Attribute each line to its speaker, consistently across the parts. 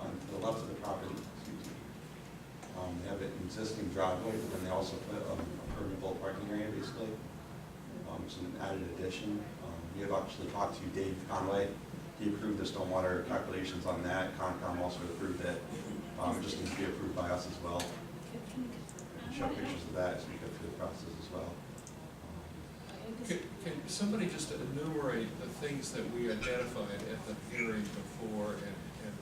Speaker 1: Um, also put um, a permeable parking area, basically. Um, It's an added addition. Um, We have actually talked to Dave Conway. He approved the stormwater calculations on that. Concom also approved it. Um, It just needs to be approved by us as well. And Show pictures of that as we go through the process as well. Um,
Speaker 2: Can, can somebody just enumerate the things that we identified at the hearing before, and, and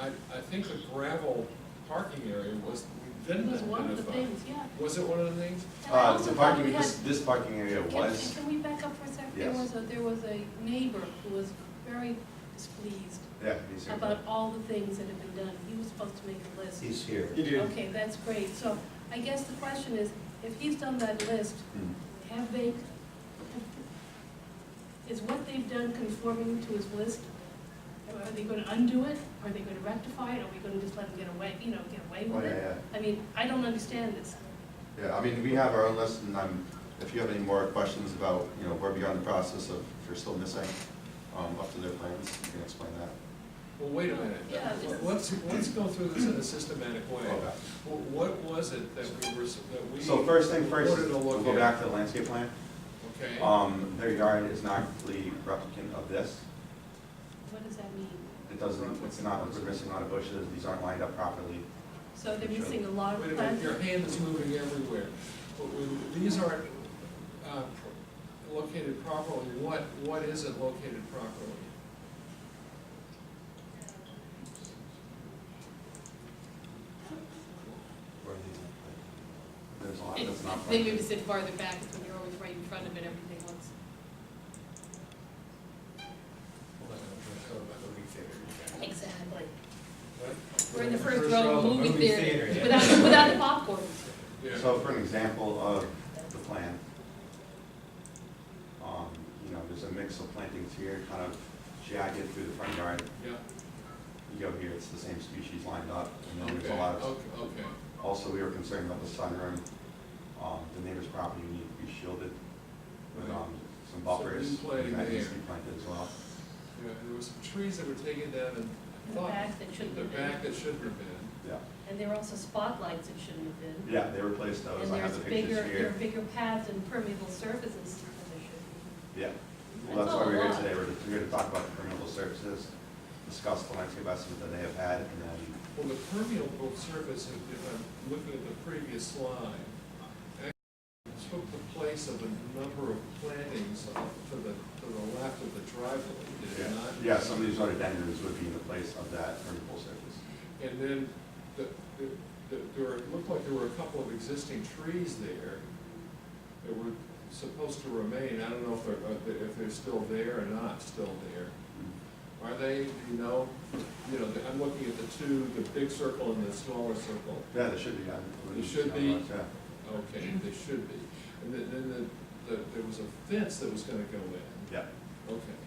Speaker 2: I, I, I think the gravel parking area was, we
Speaker 3: It
Speaker 2: didn't
Speaker 3: was one of the
Speaker 2: identify.
Speaker 3: things, yeah.
Speaker 2: Was it one of the things?
Speaker 3: And I
Speaker 1: Uh,
Speaker 3: also
Speaker 1: the
Speaker 3: thought
Speaker 1: parking,
Speaker 3: we had-
Speaker 1: this, this parking area
Speaker 3: Can-
Speaker 1: was,
Speaker 3: Can we back up for a second? There
Speaker 1: Yes.
Speaker 3: was a, there was a neighbor who was very displeased
Speaker 1: yeah. he's here.
Speaker 3: about all the things that had been done. He was supposed to make a list.
Speaker 4: He's here.
Speaker 5: You do.
Speaker 3: Okay, that's great. So I guess the question is, if he's done that list,
Speaker 1: Hmm.
Speaker 3: have they, is what they've done conforming to his list? Are they gonna undo it? Are they gonna rectify it? Are we gonna just let them get away, you know, get away
Speaker 1: Oh,
Speaker 3: with
Speaker 1: yeah,
Speaker 3: it?
Speaker 1: yeah.
Speaker 3: I mean, I don't understand this.
Speaker 1: Yeah, I mean, we have our own list, and I'm, if you have any more questions about, you know, where we are in the process of, if you're still missing, um, up to their plans, you can explain that.
Speaker 2: Well, wait a minute,
Speaker 3: Yeah, this is-
Speaker 2: let's, let's go through this in a systematic way.
Speaker 1: Okay.
Speaker 2: Wh- What was it that we were, s- that we?
Speaker 1: So first thing first,
Speaker 2: Wanted to look
Speaker 1: we'll go
Speaker 2: at.
Speaker 1: back to the landscape plan.
Speaker 2: Okay,
Speaker 1: Um, their yard is not the replicant of this.
Speaker 3: What does that mean?
Speaker 1: It doesn't, it's not, we're missing a lot of bushes, these aren't lined up properly.
Speaker 3: So they're missing a lot
Speaker 2: wait
Speaker 3: of
Speaker 2: a minute, your
Speaker 3: plants.
Speaker 2: hand is moving everywhere. But we- These aren't, uh, pro- located properly, what, what is it located properly?
Speaker 1: There's a lot that's not.
Speaker 6: It's- They maybe sit farther back, it's when you're always right in front of it, everything looks. Exactly. We're in the first row of a movie theater, without, without the popcorn.
Speaker 2: Yeah.
Speaker 1: So for an example of the plan, um, you know, there's a mix of plantings here, kind of jagged through the front yard.
Speaker 2: Yeah.
Speaker 1: You go here, it's the same species lined up, and then there's a lot of,
Speaker 2: Okay, Oh. okay.
Speaker 1: also, we were concerned about the sunroom. Um, the neighbor's property needed to be shielded with, um, some buffers.
Speaker 2: So you planted
Speaker 1: and That needs to
Speaker 2: there.
Speaker 1: be planted as well.
Speaker 2: Yeah, there were some trees that were taken down and.
Speaker 3: In the back that shouldn't
Speaker 2: The
Speaker 3: have
Speaker 2: back
Speaker 3: been.
Speaker 2: that shouldn't have been.
Speaker 1: Yeah,
Speaker 3: And there were also spotlights that shouldn't have been.
Speaker 1: yeah, they replaced those, I have the
Speaker 3: And there's
Speaker 1: pictures
Speaker 3: bigger, there are
Speaker 1: here.
Speaker 3: bigger paths and permeable surfaces that should
Speaker 1: Yeah,
Speaker 3: be.
Speaker 1: well, that's why
Speaker 3: a
Speaker 1: we're here
Speaker 3: lot.
Speaker 1: today, we're, we're here to talk about permeable surfaces, discuss the landscape estimate that they have had, and then
Speaker 2: Well, the permeable surface, if if I'm looking at the previous slide, actually took the place of a number of plantings off to the, to the left of the driveway, did
Speaker 1: Yeah,
Speaker 2: it not?
Speaker 1: yeah, some of these rhododendrons would be in the place of that permeable surface.
Speaker 2: And then the, the, the- there were, it looked like there were a couple of existing trees there that were supposed to remain. I don't know if they're, uh, if they're still there or not, still there. Are they, do you know, you know, I'm looking at the two, the big circle and the smaller circle.
Speaker 1: Yeah, there should be, yeah.
Speaker 2: There should be.
Speaker 1: Yeah.
Speaker 2: Okay, they should be. And then, then the, the, there was a fence that was gonna go in.
Speaker 1: Yeah,
Speaker 2: Okay,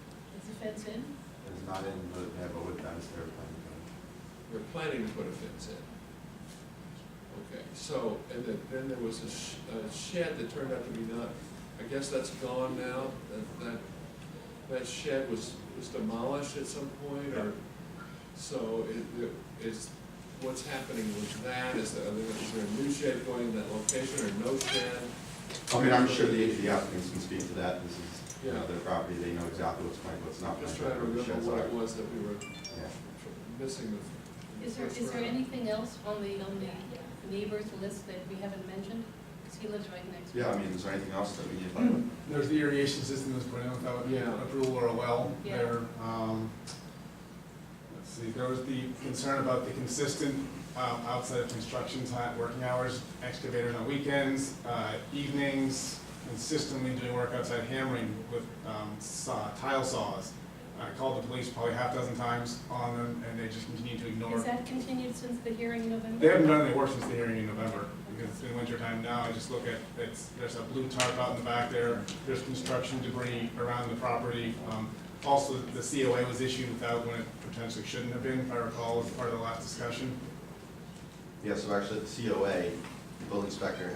Speaker 3: Is the fence in?
Speaker 1: it's not in, the they have a wood fence there.
Speaker 2: we're planning to put a fence in. Okay, so, and then, then there was a sh- a shed that turned out to be not, I guess that's gone now? That, that, that shed was, was demolished at some point,
Speaker 1: Yeah.
Speaker 2: or? So it, it is, what's happening with that? Is there, is there a new shed going in that location or no shed?
Speaker 1: I mean, I'm sure the, the applicants can speak to that, this is, you know,
Speaker 2: Yeah.
Speaker 1: their property, they know exactly what's planned, what's not
Speaker 2: I'm just
Speaker 1: planned.
Speaker 2: trying to
Speaker 1: where the sheds
Speaker 2: remember what
Speaker 1: are.
Speaker 2: it was that we were
Speaker 1: Yeah.
Speaker 2: missing the.
Speaker 3: Is there, is there anything else on the, on the neighbors list that we haven't mentioned? Because he lives right next.
Speaker 1: Yeah, I mean, is there anything else that we need to find
Speaker 2: Mm.
Speaker 1: out?
Speaker 5: There's the irrigation system that's put in without
Speaker 2: Yeah.
Speaker 5: approval or a well
Speaker 3: Yeah.
Speaker 5: there. Um, Let's see, there was the concern about the consistent um, outside of construction time, working hours, excavator on the weekends, uh, evenings, consistently doing work outside hammering with um, saw- tile saws. I called the police probably half dozen times on them, and they just continue to ignore.
Speaker 3: Is that continued since the hearing in November?
Speaker 5: They haven't done any work since the hearing in November, because it's been winter time now, I just look at, it's, there's a blue tarp out in the back there, there's construction debris around the property. Um, Also, the COA was issued without when it potentially shouldn't have been, if I recall, as part of the last discussion.
Speaker 1: Yeah, so actually, the COA, the building inspector,